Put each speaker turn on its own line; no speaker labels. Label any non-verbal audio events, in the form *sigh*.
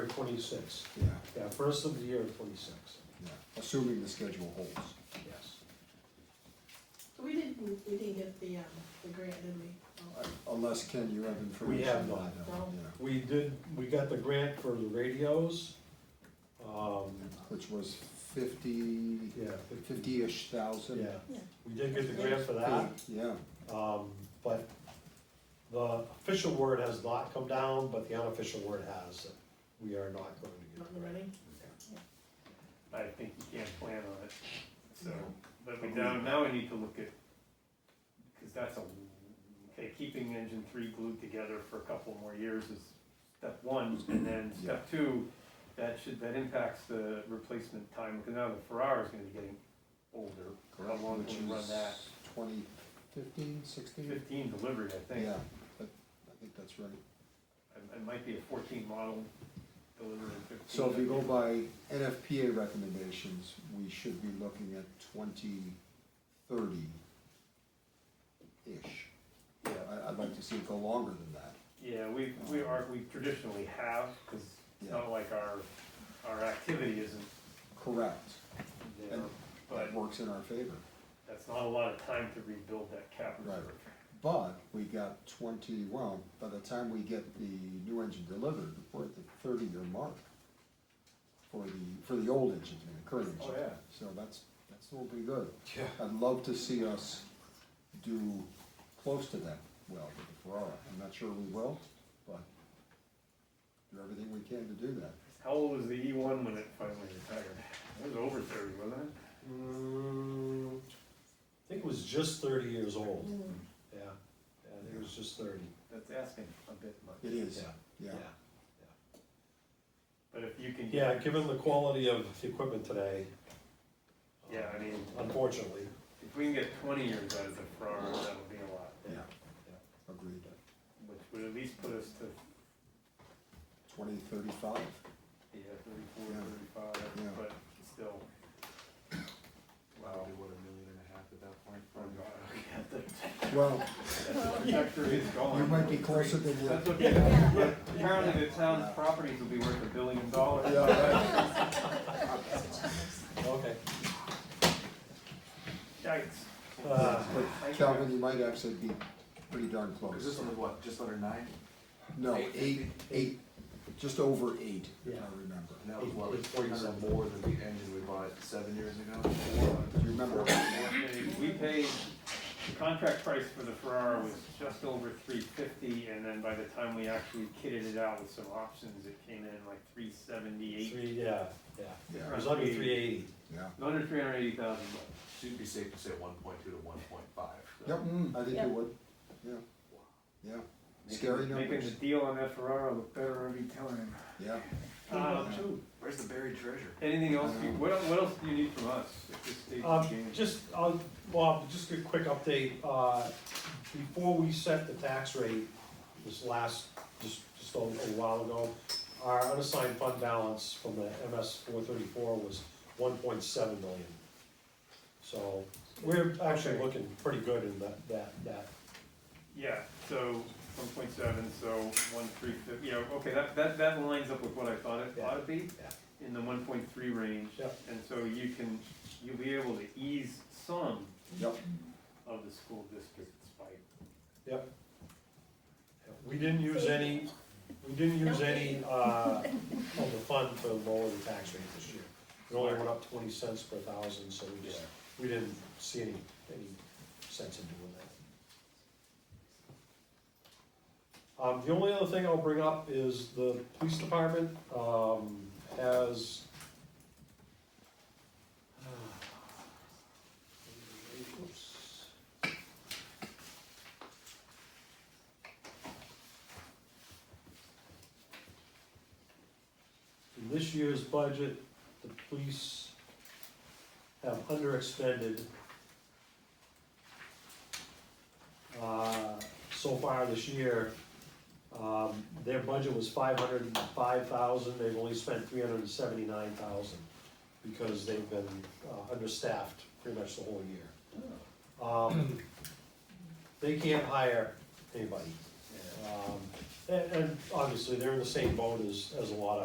twenty-six.
yeah,
Yeah, first of the year twenty-six,
yeah, assuming the schedule holds.
yes.
We didn't, we didn't get the, um, the grant, did we? Oh,
Unless, Ken, you have information.
have
that I
not.
don't, yeah.
We did, we got the grant for the radios, um,
Which was fifty,
yeah,
fifty-ish thousand.
yeah,
Yeah,
we did get the grant for that.
Yeah,
Um, but the official word has not come down, but the unofficial word has. that We are not going to
not
get
in the running?
I think you can't plan on it, so,
No.
but we now, now we need to look at, because that's a, okay, keeping engine three glued together for a couple more years is step one, and then step two, that should, that impacts the replacement time, because now the Ferrari's gonna be getting older, how
correct,
long
which
can we run
is
that?
twenty fifteen, sixteen?
Fifteen delivery, I think,
Mm. Yeah, but I think that's right.
it, it might be a fourteen model delivery in fifteen.
So if
I
you go
think.
by NFPA recommendations, we should be looking at twenty thirty-ish.
Yeah.
I, I'd like to see it go longer than that.
Yeah, we, we are, we traditionally have, because it's not like our, our activity isn't
Correct.
there, but
That works in our favor.
that's not a lot of time to rebuild that cap reserve.
Right. But we got twenty, well, by the time we get the new engine delivered, we're at the thirty-year mark for the, for the old engine, the current engine.
Oh, yeah.
So that's, that's all pretty good.
Yeah.
I'd love to see us do close to that well with the Ferrari. I'm not sure we will, but do everything we can to do that.
How old was the E one when it finally retired? It was over thirty, wasn't it?
Mm, I think it was just thirty years old,
Mm.
yeah, yeah, I think it was just thirty,
That's asking a bit much.
It is,
yeah,
yeah.
yeah.
But if you can.
Yeah, given the quality of the equipment today. um,
Yeah, I mean,
Unfortunately,
if we can get twenty years out of the Ferrari, that would be a lot,
Yeah, agreed.
which would at least put us to,
Twenty thirty-five, Yeah.
yeah, thirty-four,
Yeah.
thirty-five, but still. Wow.
Probably what, a million and a half at that
Oh, God,
point?
okay, *laughs*
well,
that's- That factory is gone.
you might be closer than you. *laughs*
That's okay. Apparently the town's properties will be worth a billion dollars.
Yeah,
okay.
Yikes.
Uh,
But Calvin, you might actually be pretty darn
Is this
close.
under what, just under nine?
No, eight, eight, just over eight, if I
Yeah.
remember.
And that was what,
Eight- eight forty
three hundred
something.
more than the engine we bought seven years ago?
Do you remember?
We paid, the contract price for the Ferrari was just over three fifty, and then by the time we actually kitted it out with some options, it came in like three seventy-eight.
Three, yeah, yeah, it
Yeah,
was under three eighty,
yeah.
Under three hundred eighty thousand bucks.
So you'd be safe to say one point two to one point five.
Yep, mm, I think
Yep.
you would, yeah, yeah, Scary
Making- Making
numbers.
the deal on that Ferrari look better every time.
yeah.
Um,
Where's the buried treasure?
Anything else, you- what, what else do you need from us at this stage
Um,
of the game?
just, uh, Bob, just a quick update, uh, before we set the tax rate, this last, just, just a a while ago, our unassigned fund balance from the MS four thirty-four was one point seven million. So, we're actually looking pretty good in that, that, that,
Yeah, so one point seven, so one three fifty, yeah, okay, that, that, that lines up with what I thought it ought to be. In the one point three range.
Yep.
And so you can, you'll be able to ease some
Yep.
of the school district's fight.
We didn't use any, we didn't use any, uh, of the fund to lower the tax rate this year. It only went up twenty cents per thousand, so we just, we didn't see any, any sense in doing that. Um, the only other thing I'll bring up is the police department, um, has. *sighs* Oops. In this year's budget, the police have underexpended uh, so far this year. Um, Their budget was five hundred and five thousand, they've only spent three hundred and seventy-nine thousand because they've been uh, understaffed pretty much the whole year. Um, They can't hire anybody. Um, And, and obviously, they're in the same boat as, as a lot of